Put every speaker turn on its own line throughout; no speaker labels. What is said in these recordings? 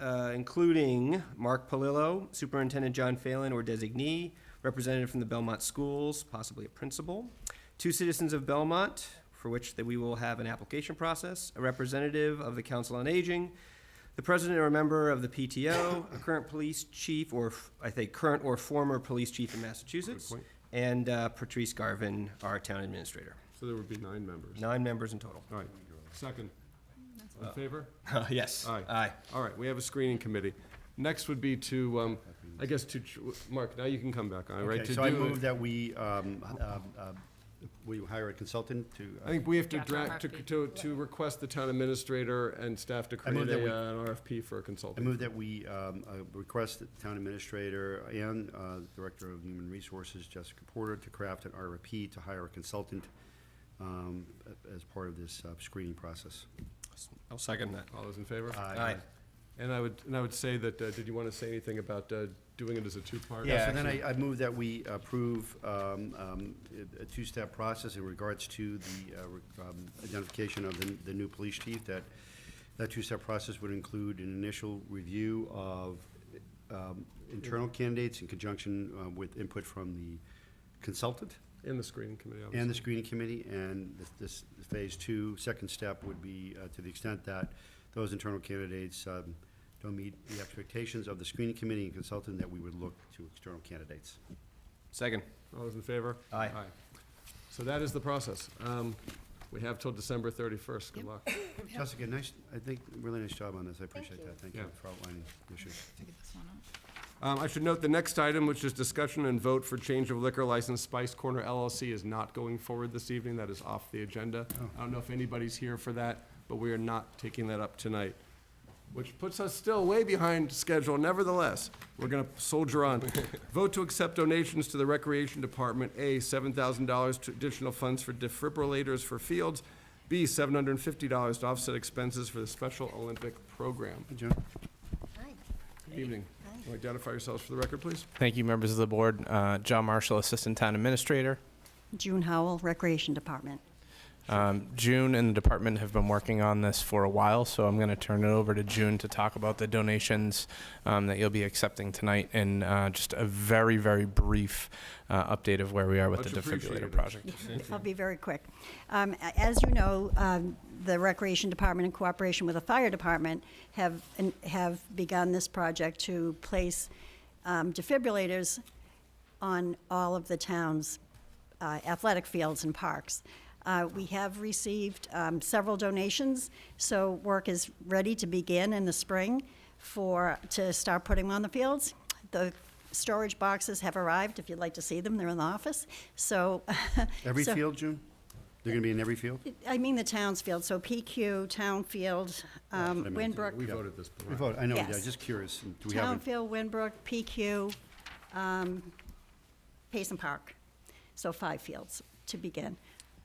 uh, including Mark Palillo, Superintendent John Phelan or designee, representative from the Belmont Schools, possibly a principal, two citizens of Belmont, for which that we will have an application process, a representative of the Council on Aging, the president or member of the PTO, a current police chief, or f- I think current or former police chief in Massachusetts,
point.
and uh, Patrice Garvin, our town administrator.
So there would be nine members.
Nine members in total.
All right, second. In favor?
Yes.
Aye.
Aye.
All right, we have a screening committee. Next would be to, um, I guess to, ch- Mark, now you can come back, all right?
Okay,
to
so I
do
move
it-
that we, um, um, um, will you hire a consultant to? uh,
I think we have to
Draft
draft, to,
RFP.
to, to request the town administrator and staff to create
move that
a,
we-
uh, an RFP for a
I
consultant.
move that we um, uh, request that the town administrator and uh, Director of Human Resources, Jessica Porter, to craft an RFP to hire a consultant um, a- as part of this uh, screening process.
I'll second that.
All those in favor?
Aye.
And I would, and I would say that, uh, did you want to say anything about, uh, doing it as a two-part?
Yeah, so then I, I move that we approve um, um, a a two-step process in regards to the uh, re- um, identification of the, the new police chief, that, that two-step process would include an initial review of um, internal candidates in conjunction uh, with input from the consultant
In the screening committee, obviously.
and the screening committee, and this- this, phase two, second step would be, uh, to the extent that those internal candidates um, don't meet the expectations of the screening committee and consultant, that we would look to external candidates.
Second.
All those in favor?
Aye.
So that is the process. Um, we have till December thirty-first. Good luck.
Jessica, nice, I think, really nice job on this, I appreciate
you.
that, thank you
Yeah.
for outlining the issue.
Figure this one out.
Um, I should note the next item, which is discussion and vote for change of liquor license, Spice Corner LLC is not going forward this evening. That is off the agenda. I don't know if anybody's here for that, but we are not taking that up tonight, which puts us still way behind schedule. Nevertheless, we're going to soldier on. Vote to accept donations to the Recreation Department, A, $7,000 to additional funds for defibrillators for fields, B, $750 to offset expenses for the Special Olympic Program.
Hey, Joan?
Good evening. Identify yourselves for the record, please.
Thank you, members of the board. Uh, John Marshall, Assistant Town Administrator.
June Howell, Recreation Department.
Um, June and the department have been working on this for a while, so I'm going to turn it over to June to talk about the donations um, that you'll be accepting tonight and uh, just a very, very brief uh, update of where we are with
Much
the defibrillator
appreciated.
project.
I'll be very quick. Um, a- As you know, um, the Recreation Department, in cooperation with the Fire Department, have, and have begun this project to place um, defibrillators on all of the town's uh, athletic fields and parks. Uh, We have received um, several donations, so work is ready to begin in the spring for, to start putting them on the fields. The storage boxes have arrived, if you'd like to see them, they're in the office, so.
Every
so-
field, June? They're gonna be in every field?
I mean the town's field, so PQ, town field, um,
That's what I meant.
Winbrook,
We voted this.
We vote, I know, yeah,
Yes.
just curious, do we
town
have, a-
field, Winbrook, PQ, um, Payson Park. So five fields to begin.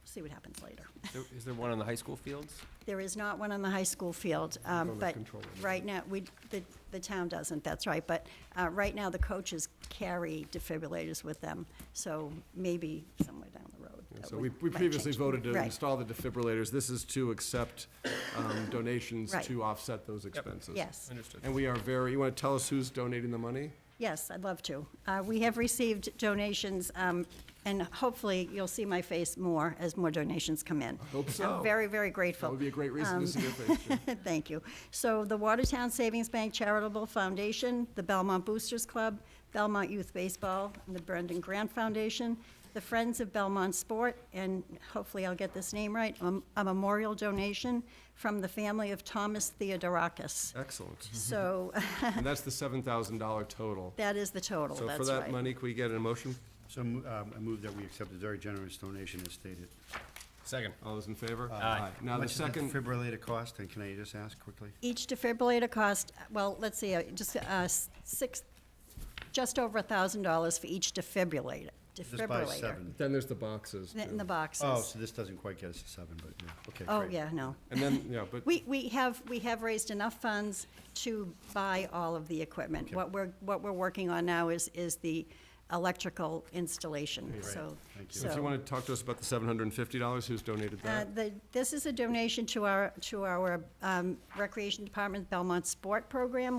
See what happens later.
Is there one on the high school fields?
There is not one on the high school field, um,
Don't
but
control it.
right now, we, the, the town doesn't, that's right. But, uh, right now, the coaches carry defibrillators with them, so maybe somewhere down the road. that
So
would-
we, we
might
previously
change.
voted to
Right.
install the defibrillators. This is to accept um, donations
Right.
to offset those expenses.
Yes.
Understood.
And we are very, you want to tell us who's donating the money?
Yes, I'd love to. Uh, We have received donations, um, and hopefully you'll see my face more as more donations come in.
hope so.
I'm very, very
That
grateful.
would be a great reason
Um,
to see your face, Jim.
Thank you. So the Watertown Savings Bank Charitable Foundation, the Belmont Boosters Club, Belmont Youth Baseball, and the Brendan Grant Foundation, the Friends of Belmont Sport, and hopefully I'll get this name right, um, a memorial donation from the family of Thomas Theodorakis.
Excellent.
So
And that's the seven thousand dollar total.
that is the total,
So
that's right.
for that money, can we get a motion?
so um, I move that we accept a very generous donation as stated.
Second.
All those in favor?
Aye.
Now, the
How much
second,
does the defibrillator cost, and can I just ask quickly?
Each defibrillator cost, well, let's see, uh, just uh, s- six, just over a thousand dollars for each defibrillator.
Just by
Defibrillator.
seven.
then there's the boxes.
In the- In the
too.
Oh,
boxes.
so this doesn't quite get us to seven, but, yeah, okay,
Oh,
great.
yeah, no.
And then, yeah, but,
We, we have, we have raised enough funds to buy all of the equipment. What we're, what we're working on now is, is the electrical installation, so.
Thank
so if you
so,
want to talk to us about the seven hundred and fifty dollars, who's donated
uh,
that?
the- This is a donation to our, to our um, Recreation Department Belmont Sport Program,